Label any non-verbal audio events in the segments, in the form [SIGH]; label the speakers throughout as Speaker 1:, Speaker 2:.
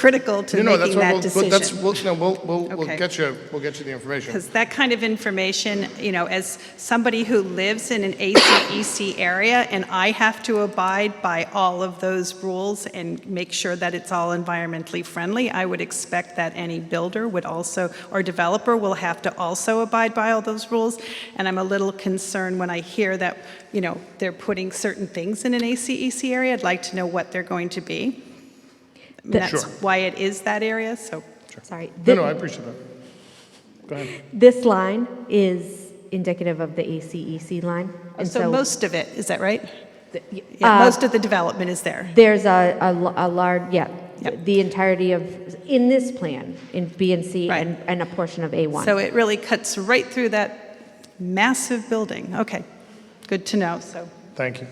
Speaker 1: critical to
Speaker 2: No, no, that's
Speaker 1: making
Speaker 2: what
Speaker 1: that
Speaker 2: we'll- we'll- that's-
Speaker 1: decision.
Speaker 2: We'll, no, we'll, we'll, we'll
Speaker 1: Okay.
Speaker 2: get you, we'll get you the information.
Speaker 1: Because that kind of information, you know, as somebody who lives in an ACEC area, and I have to abide by all of those rules and make sure that it's all environmentally friendly, I would expect that any builder would also, or developer will have to also abide by all those rules. And I'm a little concerned when I hear that, you know, they're putting certain things in an ACEC area. I'd like to know what they're going to be. And
Speaker 3: The-
Speaker 1: That's
Speaker 2: Sure.
Speaker 1: why it is that area, so.
Speaker 3: Sorry.
Speaker 2: No,
Speaker 3: Thi-
Speaker 2: no, I appreciate that. Go ahead.
Speaker 3: This line is indicative of the ACEC line. and
Speaker 1: So most of it, is that right?
Speaker 3: th- y-
Speaker 1: Yeah,
Speaker 3: uh,
Speaker 1: most of the development is there.
Speaker 3: There's a, a l- a large, yeah,
Speaker 1: Yep.
Speaker 3: the entirety of, in this plan, in B and C
Speaker 1: Right.
Speaker 3: and, and a portion of A1.
Speaker 1: So it really cuts right through that massive building. Okay, good to know, so.
Speaker 2: Thank you.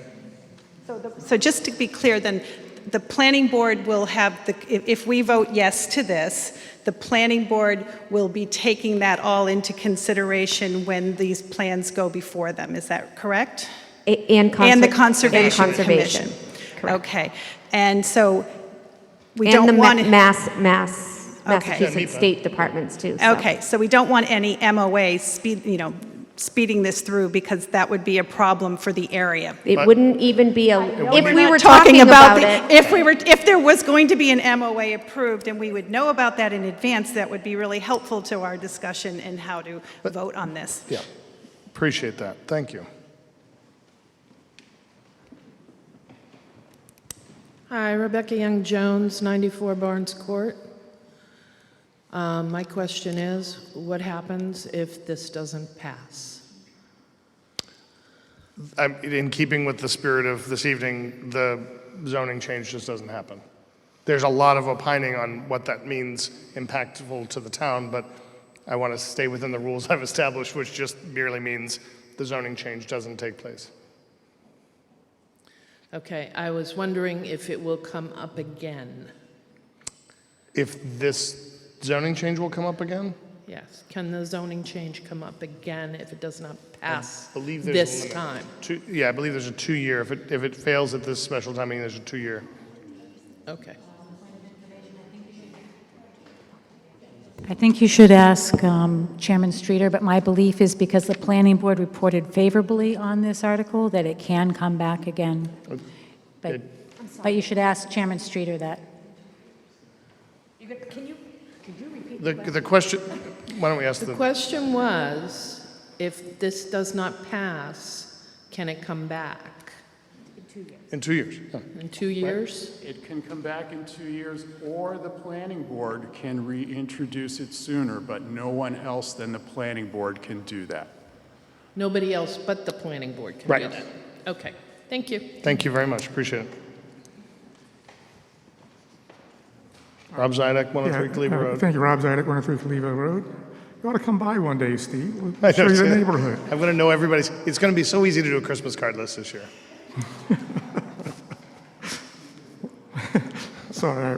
Speaker 1: So just to be clear, then, the planning board will have, the if- if we vote yes to this, the planning board will be taking that all into consideration when these plans go before them, is that correct?
Speaker 3: A- And conser-
Speaker 1: And the Conservation
Speaker 3: And conservation.
Speaker 1: Commission? Okay, and so we
Speaker 3: And the
Speaker 1: don't
Speaker 3: ma-
Speaker 1: want to...
Speaker 3: Mass, Mass,
Speaker 1: Okay.
Speaker 2: Yeah,
Speaker 3: Massachusetts
Speaker 2: NEPA.
Speaker 3: State Departments too. so.
Speaker 1: Okay, so we don't want any MOA speed, you know, speeding this through because that would be a problem for the area.
Speaker 3: It wouldn't even be a, if we
Speaker 1: Not
Speaker 3: were talking about it.
Speaker 1: the- If we were, if there was going to be an MOA approved and we would know about that in advance, that would be really helpful to our discussion and how to vote on this.
Speaker 2: Yeah, appreciate that. Thank you.
Speaker 4: Hi, Rebecca Young Jones, 94 Barnes Court. Um, My question is, what happens if this doesn't pass?
Speaker 2: I'm- In keeping with the spirit of this evening, the zoning change just doesn't happen. There's a lot of opining on what that means impactful to the town, but I want to stay within the rules I've established, which just merely means the zoning change doesn't take place.
Speaker 4: Okay, I was wondering if it will come up again.
Speaker 2: If this zoning change will come up again?
Speaker 4: Yes, can the zoning change come up again if it does not pass
Speaker 2: believe there's a
Speaker 4: this
Speaker 2: limit.
Speaker 4: time?
Speaker 2: Two, yeah, I believe there's a two-year, if it, if it fails at this special time meeting, there's a two-year.
Speaker 4: Okay.
Speaker 5: I think you should ask um, Chairman Streeter, but my belief is because the planning board reported favorably on this article, that it can come back again. But, but you should ask Chairman Streeter that.
Speaker 2: The, the question, why don't we ask
Speaker 4: The
Speaker 2: the,
Speaker 4: question was, if this does not pass, can it come back
Speaker 2: in two years? yeah.
Speaker 4: in two years?
Speaker 6: It can come back in two years, or the planning board can reintroduce it sooner, but no one else than the planning board can do that.
Speaker 4: Nobody else but the planning board can do
Speaker 2: Right.
Speaker 4: that? Okay, thank you.
Speaker 2: Thank you very much, appreciate it. Rob Zidek,
Speaker 7: Yeah,
Speaker 2: 103 Cleaver
Speaker 7: uh,
Speaker 2: Road.
Speaker 7: Thank you, Rob Zidek, 103 Cleaver Road. You ought to come by one day, Steve. We'll
Speaker 2: [LAUGHS] I know,
Speaker 7: Show you the
Speaker 2: it's-
Speaker 7: neighborhood.
Speaker 2: I'm gonna know everybody's, it's gonna be so easy to do a Christmas card list this year.
Speaker 7: Sorry, I- Uh,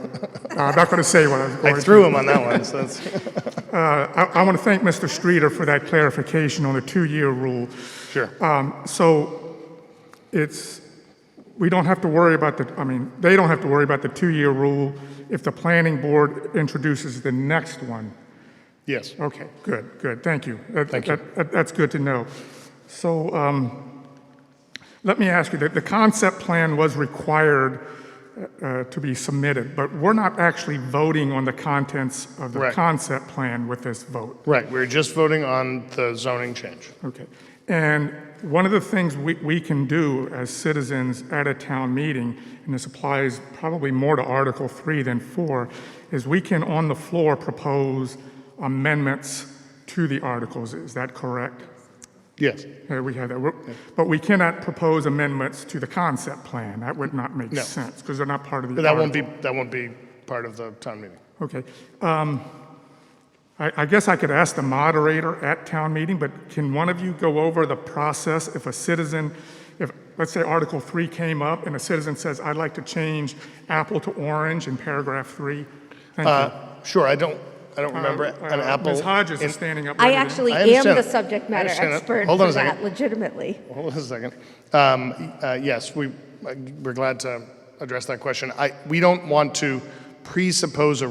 Speaker 7: I'm not going to say what I was going
Speaker 2: I
Speaker 7: to.
Speaker 2: threw him on that one, so that's, [LAUGHS]
Speaker 7: I want to thank Mr. Streeter for that clarification on the two-year rule.
Speaker 2: sure.
Speaker 7: Uh, So it's, we don't have to worry about the, I mean, they don't have to worry about the two-year rule if the planning board introduces the next one.
Speaker 2: Yes,
Speaker 7: Okay, good, good, thank you. That-
Speaker 2: Thank you.
Speaker 7: that- that- That's good to know. So um, let me ask you, that the concept plan was required uh, to be submitted, but we're not actually voting on the contents of the
Speaker 2: Right.
Speaker 7: concept plan with this vote.
Speaker 2: right, we we're just voting on the zoning change.
Speaker 7: Okay. And one of the things we, we can do as citizens at a town meeting, and this applies probably more to Article 3 than 4, is we can on the floor propose amendments to the articles. Is that correct?
Speaker 2: Yes,
Speaker 7: Uh, We have that. We're- But we cannot propose amendments to the concept plan. That would not make
Speaker 2: No.
Speaker 7: sense because they're not part of the.
Speaker 2: but that won't
Speaker 7: article.
Speaker 2: be, that won't be part of the town meeting.
Speaker 7: Okay. Um, I I guess I could ask the moderator at town meeting, but can one of you go over the process if a citizen, if, let's say Article 3 came up and a citizen says, I'd like to change apple to orange in paragraph 3? Thank you.
Speaker 2: Uh, Sure, I don't, I don't remember an
Speaker 7: Uh,
Speaker 2: apple.
Speaker 7: Ms. Hodges
Speaker 2: in-
Speaker 7: is standing up.
Speaker 3: I
Speaker 7: ready to-
Speaker 3: actually
Speaker 2: I
Speaker 3: am
Speaker 2: understand
Speaker 3: the
Speaker 2: that. I
Speaker 3: subject matter
Speaker 2: understand that.
Speaker 3: expert
Speaker 2: Hold on
Speaker 3: for
Speaker 2: a second.
Speaker 3: that, legitimately.
Speaker 2: Hold on a second. Um, uh, Yes, we, uh, we're glad to address that question. I, we don't want to presuppose a